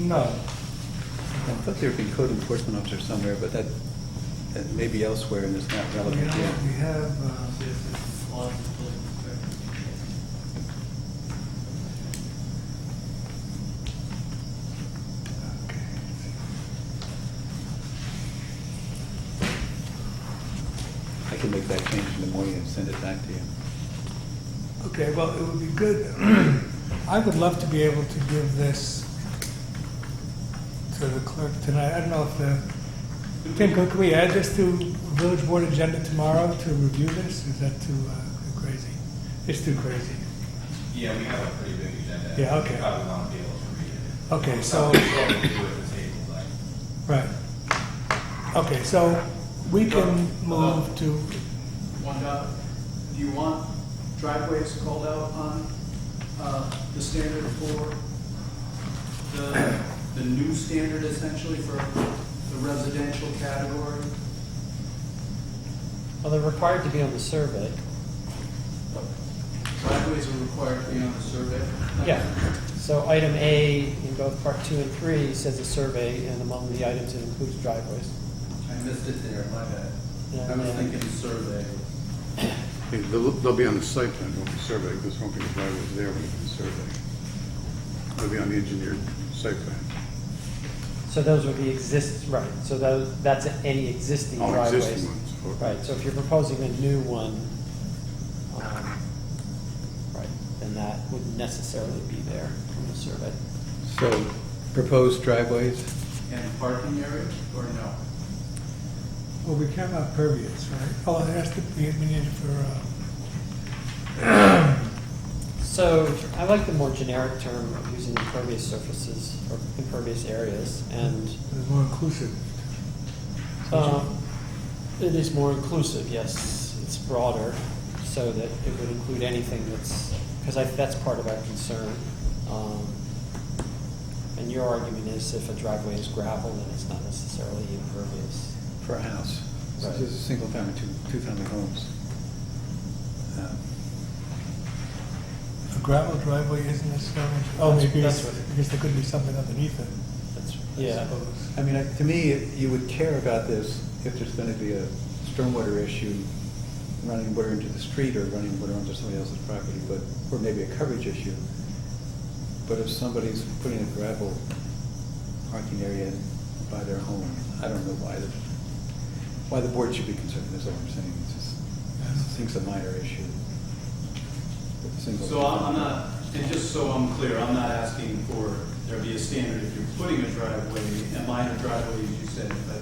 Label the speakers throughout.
Speaker 1: No.
Speaker 2: I thought there'd be code enforcement officer somewhere, but that, that may be elsewhere and it's not
Speaker 1: We
Speaker 2: relevant yet.
Speaker 1: have, we have, uh,
Speaker 2: I can make that change in the morning and send it back to you.
Speaker 1: Okay, well, it would be good, I would love to be able to give this to the clerk tonight. I don't know if the, Tim, could we add this to village board agenda tomorrow to review this? Is that too uh, crazy? It's too crazy.
Speaker 3: Yeah, we have a pretty big agenda.
Speaker 1: Yeah, okay.
Speaker 3: We Probably want to be able to read it.
Speaker 1: Okay, so-
Speaker 3: Something we can do at the table, like,
Speaker 1: Right. Okay, so we can move to,
Speaker 4: One dot, do you want driveways called out on uh, the standard for the, the new standard essentially for the residential category?
Speaker 5: Well, they're required to be on the survey.
Speaker 4: Driveways are required to be on the survey?
Speaker 5: Yeah. So item A in both part two and three says a survey, and among the items it includes driveways.
Speaker 4: I missed it there, my bad. I was
Speaker 5: Yeah.
Speaker 4: thinking survey.
Speaker 6: Hey, They'll, they'll be on the site plan, won't be surveyed, because won't be the driveway's there when it's surveyed. They'll be on the engineered site plan.
Speaker 5: So those would be exist, right, so those, that's any existing
Speaker 6: All
Speaker 5: driveways.
Speaker 6: existing ones, okay.
Speaker 5: Right, so if you're proposing a new one, um, right, then that wouldn't necessarily be there from the survey.
Speaker 2: So proposed driveways,
Speaker 4: And parking area or no?
Speaker 1: well, we care about pervious, right? Oh, it has to be, we need it for, uh,
Speaker 5: So I like the more generic term of using impervious surfaces or impervious areas, and
Speaker 1: it's more inclusive.
Speaker 5: Um, It is more inclusive, yes. It's broader, so that it would include anything that's, because I, that's part of our concern. Um, And your argument is if a driveway is gravel, then it's not necessarily impervious.
Speaker 2: for a house. So
Speaker 5: Right.
Speaker 2: This is a single family, two, two family homes. Um,
Speaker 1: A gravel driveway isn't necessarily, oh,
Speaker 5: That's-
Speaker 1: maybe it's,
Speaker 5: that's what-
Speaker 1: because there could be something underneath it,
Speaker 5: That's,
Speaker 1: I
Speaker 5: yeah.
Speaker 1: suppose.
Speaker 2: I mean, I- to me, you would care about this if there's going to be a stormwater issue, running water into the street or running water onto somebody else's property, but, or maybe a coverage issue. But if somebody's putting a gravel parking area by their home, I don't know why the, why the board should be concerned, that's all I'm saying. It's just, I think it's a minor issue. But the single-
Speaker 4: So I'm I'm not, and just so I'm clear, I'm not asking for there be a standard if you're putting a driveway, a minor driveway, as you said, but,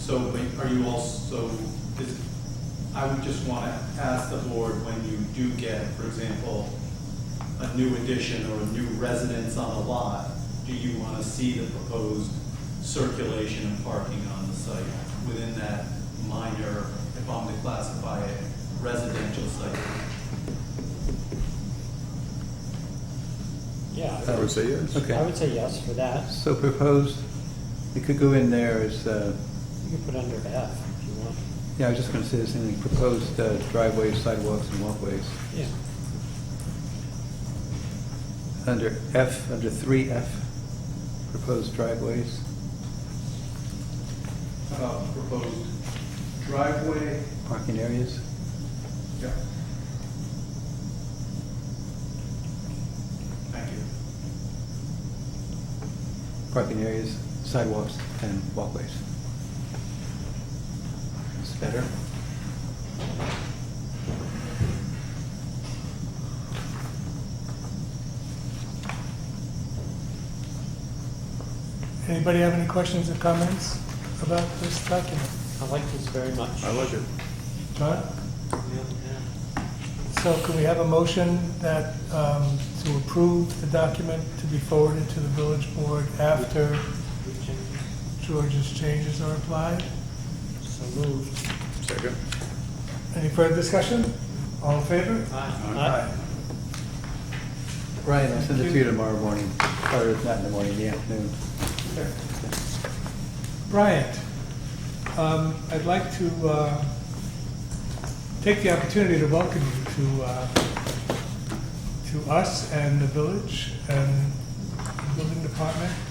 Speaker 4: so, but are you also, is, I would just want to ask the board when you do get, for example, a new addition or a new residence on a lot, do you want to see the proposed circulation of parking on the site within that minor, if I'm to classify it, residential site?
Speaker 5: Yeah.
Speaker 6: I would say yes.
Speaker 2: Okay.
Speaker 5: I would say yes for that.
Speaker 2: So proposed, it could go in there as, uh,
Speaker 5: You could put under F if you want.
Speaker 2: Yeah, I was just going to say the same thing, proposed uh, driveways, sidewalks, and walkways.
Speaker 5: Yeah.
Speaker 2: Under F, under 3F, proposed driveways.
Speaker 4: uh, proposed driveway.
Speaker 2: Parking areas?
Speaker 4: Yeah. Thank you.
Speaker 2: Parking areas, sidewalks, and walkways. That's better.
Speaker 1: Anybody have any questions or comments about this document?
Speaker 5: I like this very much.
Speaker 6: I like it.
Speaker 1: John?
Speaker 5: Yeah,
Speaker 1: So can we have a motion that, um, to approve the document to be forwarded to the village board after
Speaker 5: yeah.
Speaker 1: George's changes are applied?
Speaker 5: So moved.
Speaker 6: Second.
Speaker 1: Any further discussion? All in favor?
Speaker 5: Aye.
Speaker 2: Brian, I'll send it to you tomorrow morning, or if not in the morning, in the afternoon.
Speaker 1: Bryant, um, I'd like to uh, take the opportunity to welcome you to, uh, to us and the village and the building department.